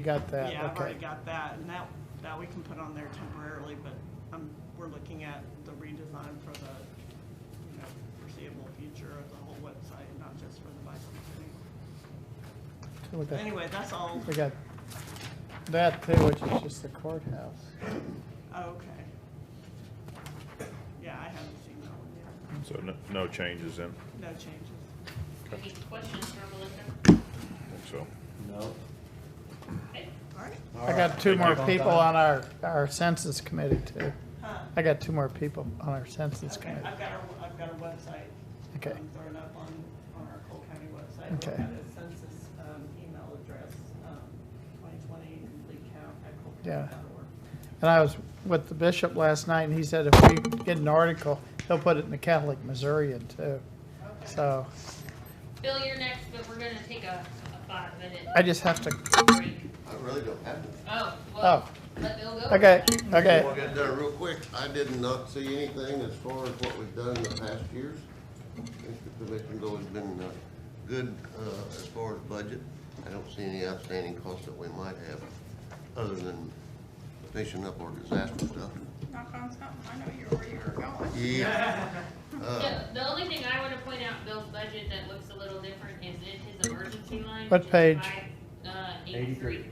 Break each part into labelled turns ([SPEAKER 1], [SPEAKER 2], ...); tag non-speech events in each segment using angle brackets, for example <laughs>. [SPEAKER 1] You got that,
[SPEAKER 2] Yeah, I've
[SPEAKER 1] okay.
[SPEAKER 2] already got that, and that, that we can put on there temporarily, but um, we're looking at the redesign for the, you know, foreseeable future of the whole website, not just for the bicycle thing.
[SPEAKER 1] We got-
[SPEAKER 2] Anyway, that's all,
[SPEAKER 1] We got that too, which is just the courthouse.
[SPEAKER 2] okay. Yeah, I haven't seen that one yet,
[SPEAKER 3] So no, no changes in,
[SPEAKER 2] no changes.
[SPEAKER 4] Any questions for Melissa?
[SPEAKER 3] I think so.
[SPEAKER 5] No.
[SPEAKER 4] Okay.
[SPEAKER 2] All right,
[SPEAKER 1] I got two more people on our, our census committee too.
[SPEAKER 2] Huh.
[SPEAKER 1] I got two more people on our census
[SPEAKER 2] okay,
[SPEAKER 1] committee.
[SPEAKER 2] I've got our, I've got our website.
[SPEAKER 1] Okay.
[SPEAKER 2] um, Thrown up on, on our Cole County website. We've
[SPEAKER 1] Okay.
[SPEAKER 2] got a census um, email address, um, 2020 complete count at
[SPEAKER 1] Yeah.
[SPEAKER 2] colecounty.org.
[SPEAKER 1] And I was with the bishop last night and he said if we get an article, he'll put it in the Catholic Missourian too. So
[SPEAKER 4] Bill, you're next, but we're gonna take a, a five minute
[SPEAKER 1] I just have to,
[SPEAKER 4] break.
[SPEAKER 6] I really don't have to.
[SPEAKER 4] Oh, well, let Bill go.
[SPEAKER 1] okay, okay.
[SPEAKER 6] We'll get there real quick. I did not see anything as far as what we've done in the past years. I think the commission's always been uh, good uh, as far as budget. I don't see any outstanding costs that we might have, other than fishing up or disaster stuff.
[SPEAKER 7] Knock on something, I know you're where you're going.
[SPEAKER 6] Yeah, Uh-huh. Uh,
[SPEAKER 4] <laughs> The, the only thing I wanna point out, Bill's budget that looks a little different is in his emergency line.
[SPEAKER 1] What
[SPEAKER 4] which is
[SPEAKER 1] page?
[SPEAKER 4] five, Uh, eighty-three.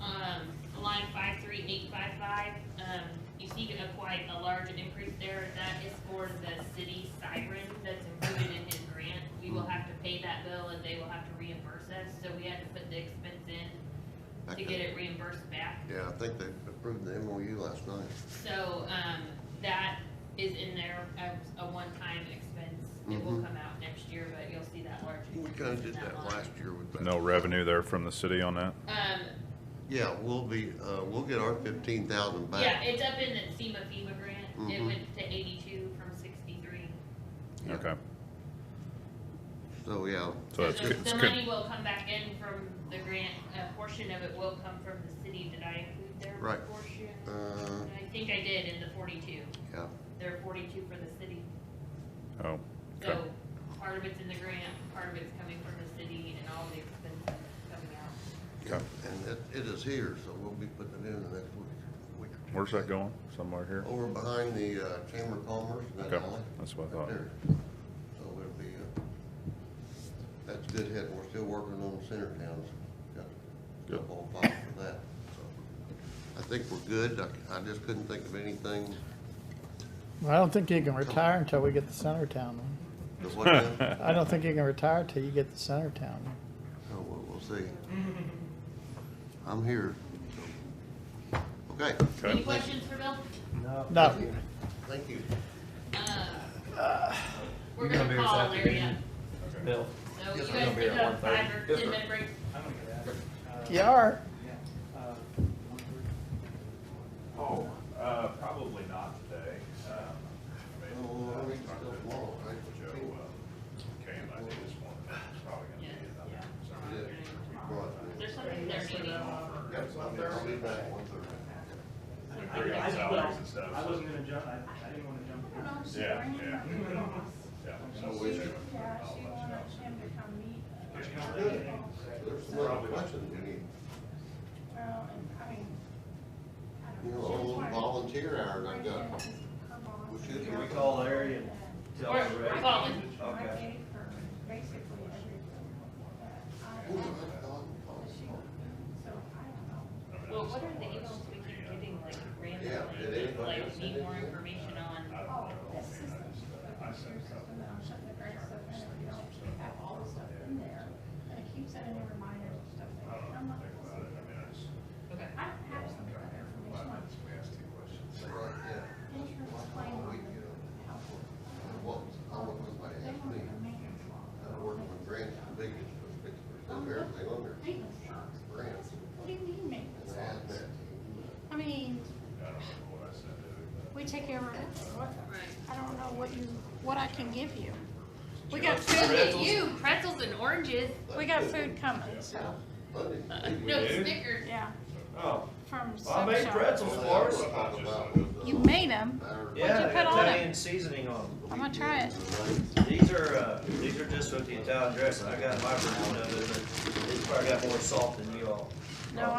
[SPEAKER 4] Um, line five three eight five five, um, you see a quite a large increase there, that is for the city siren that's included in his grant. We will have to pay that bill and they will have to reimburse us, so we had to put the expense in to get it reimbursed back.
[SPEAKER 6] yeah, I think they approved the MOU last night.
[SPEAKER 4] So, um, that is in there as a one-time expense. It will come out next year, but you'll see that large.
[SPEAKER 6] Mm-hmm. We kind of
[SPEAKER 4] increase in
[SPEAKER 6] did that
[SPEAKER 4] line.
[SPEAKER 6] last year with that.
[SPEAKER 3] No revenue there from the city on that?
[SPEAKER 4] Um,
[SPEAKER 6] Yeah, we'll be, uh, we'll get our fifteen thousand back.
[SPEAKER 4] yeah, it's up in the SEMA FEMA grant. It
[SPEAKER 6] Mhm.
[SPEAKER 4] went to eighty-two from sixty-three.
[SPEAKER 6] Yeah.
[SPEAKER 3] Okay,
[SPEAKER 6] So, yeah,
[SPEAKER 3] so that's,
[SPEAKER 4] the-
[SPEAKER 3] good. it's
[SPEAKER 4] The
[SPEAKER 3] good.
[SPEAKER 4] money will come back in from the grant, a portion of it will come from the city. Did I include their
[SPEAKER 6] Right.
[SPEAKER 4] portion?
[SPEAKER 6] uh,
[SPEAKER 4] I think I did in the forty-two.
[SPEAKER 6] yeah.
[SPEAKER 4] There are forty-two for the city.
[SPEAKER 3] Oh, okay,
[SPEAKER 4] So part of it's in the grant, part of it's coming from the city and all the expenses coming out.
[SPEAKER 3] okay.
[SPEAKER 6] And it, it is here, so we'll be putting it in the next week. week or two.
[SPEAKER 3] Where's that going? Somewhere here?
[SPEAKER 6] Over behind the uh, Chamber of Commerce, that
[SPEAKER 3] Okay,
[SPEAKER 6] alley.
[SPEAKER 3] that's what I thought.
[SPEAKER 6] Right there. So it'll be, uh, that's good hit, we're still working on the center towns. Got a
[SPEAKER 3] Good.
[SPEAKER 6] whole file for that. So I think we're good, I, I just couldn't think of anything.
[SPEAKER 1] I don't think you can retire until we get the Centertown one.
[SPEAKER 6] to
[SPEAKER 3] <laughs>
[SPEAKER 6] what then.
[SPEAKER 1] I don't think you can retire till you get the Centertown one.
[SPEAKER 6] So we'll, we'll see. I'm here. so. Okay,
[SPEAKER 4] Any
[SPEAKER 3] Okay.
[SPEAKER 4] questions for Bill?
[SPEAKER 1] No,
[SPEAKER 6] thank you.
[SPEAKER 4] Uh, We're gonna call Larry up.
[SPEAKER 5] Bill.
[SPEAKER 4] So you
[SPEAKER 5] Yes,
[SPEAKER 4] guys
[SPEAKER 5] I'm gonna be
[SPEAKER 4] take
[SPEAKER 5] here at
[SPEAKER 4] a five
[SPEAKER 5] 1:30.
[SPEAKER 4] or ten minute break.
[SPEAKER 8] I'm gonna get out of
[SPEAKER 1] you
[SPEAKER 8] here. Uh,
[SPEAKER 1] are.
[SPEAKER 8] yeah, uh,
[SPEAKER 9] Oh, uh, probably not today. Um, maybe, uh,
[SPEAKER 6] Oh, it's
[SPEAKER 9] talk
[SPEAKER 6] still
[SPEAKER 9] to
[SPEAKER 6] tomorrow, right?
[SPEAKER 9] Joe, uh, came, I think this morning, it's probably gonna be another.
[SPEAKER 6] Yeah.
[SPEAKER 4] There's something there you need.
[SPEAKER 6] Got something, I'll be back one thirty.
[SPEAKER 8] I-
[SPEAKER 9] Agreed
[SPEAKER 8] I-
[SPEAKER 9] on salaries and stuff,
[SPEAKER 8] I
[SPEAKER 9] so-
[SPEAKER 8] wasn't gonna jump, I, I didn't wanna jump.
[SPEAKER 9] Yeah, yeah, yeah. So
[SPEAKER 7] She,
[SPEAKER 9] we should-
[SPEAKER 7] yeah,
[SPEAKER 9] I'll let
[SPEAKER 7] she
[SPEAKER 9] you
[SPEAKER 7] wanted
[SPEAKER 9] know.
[SPEAKER 7] him to come meet. us.
[SPEAKER 6] There's no question, we need,
[SPEAKER 7] Well, and, I mean, I don't
[SPEAKER 6] you know,
[SPEAKER 7] know.
[SPEAKER 6] a little volunteer hour and I got,
[SPEAKER 7] Her boss.
[SPEAKER 6] we should,
[SPEAKER 5] Can we call Larry and tell
[SPEAKER 4] We're
[SPEAKER 5] him, right?
[SPEAKER 4] calling.
[SPEAKER 7] I
[SPEAKER 5] Okay.
[SPEAKER 7] gave her basically everything.
[SPEAKER 6] Ooh,
[SPEAKER 7] that
[SPEAKER 6] I thought-
[SPEAKER 7] I- she- So, I don't know.
[SPEAKER 4] Well, what are the emails we keep getting like
[SPEAKER 6] did
[SPEAKER 4] randomly,
[SPEAKER 6] anybody
[SPEAKER 4] like
[SPEAKER 6] send
[SPEAKER 4] need
[SPEAKER 6] it
[SPEAKER 4] more
[SPEAKER 6] to you?
[SPEAKER 4] information on?
[SPEAKER 7] Oh, this system, the computer system, that I'm shutting the grass up, and if you don't have all the stuff in there, and it keeps sending me reminders of stuff, like, and I'm not gonna see it.
[SPEAKER 4] Okay.
[SPEAKER 7] I don't have some of that information, like,
[SPEAKER 9] We asked two questions.
[SPEAKER 6] but like, yeah,
[SPEAKER 7] insurance claim on the household.
[SPEAKER 6] what was, all of them, I
[SPEAKER 7] They
[SPEAKER 6] asked
[SPEAKER 7] want
[SPEAKER 6] me,
[SPEAKER 7] a maintenance law.
[SPEAKER 6] I worked with grants, the biggest, fix percent everything on there.
[SPEAKER 7] Maintenance laws.
[SPEAKER 6] Grants,
[SPEAKER 7] What do you mean
[SPEAKER 6] and
[SPEAKER 7] maintenance
[SPEAKER 6] I had
[SPEAKER 7] laws?
[SPEAKER 6] that,
[SPEAKER 7] I mean,
[SPEAKER 9] I don't remember what I said to him, but
[SPEAKER 7] we take care of it. What-
[SPEAKER 4] Right.
[SPEAKER 7] I don't know what you, what I can give you. We got
[SPEAKER 4] Look
[SPEAKER 7] food,
[SPEAKER 4] at you, pretzels and oranges.
[SPEAKER 7] we got food coming, so,
[SPEAKER 6] Monday,
[SPEAKER 4] <laughs>
[SPEAKER 6] we
[SPEAKER 4] No,
[SPEAKER 5] do?
[SPEAKER 4] Snickers.
[SPEAKER 7] yeah,
[SPEAKER 5] Oh,
[SPEAKER 7] from
[SPEAKER 5] I
[SPEAKER 7] Sub
[SPEAKER 5] made
[SPEAKER 7] Shop.
[SPEAKER 5] pretzels for us.
[SPEAKER 6] talked about
[SPEAKER 7] You made them?
[SPEAKER 6] our
[SPEAKER 5] Yeah,
[SPEAKER 7] you
[SPEAKER 5] they
[SPEAKER 7] put
[SPEAKER 5] got
[SPEAKER 7] on it?
[SPEAKER 5] Italian seasoning on them.
[SPEAKER 7] I'm gonna try it.
[SPEAKER 5] These are, uh, these are just with the Italian dressing. I got my version of it, but it's probably got more salt than you all.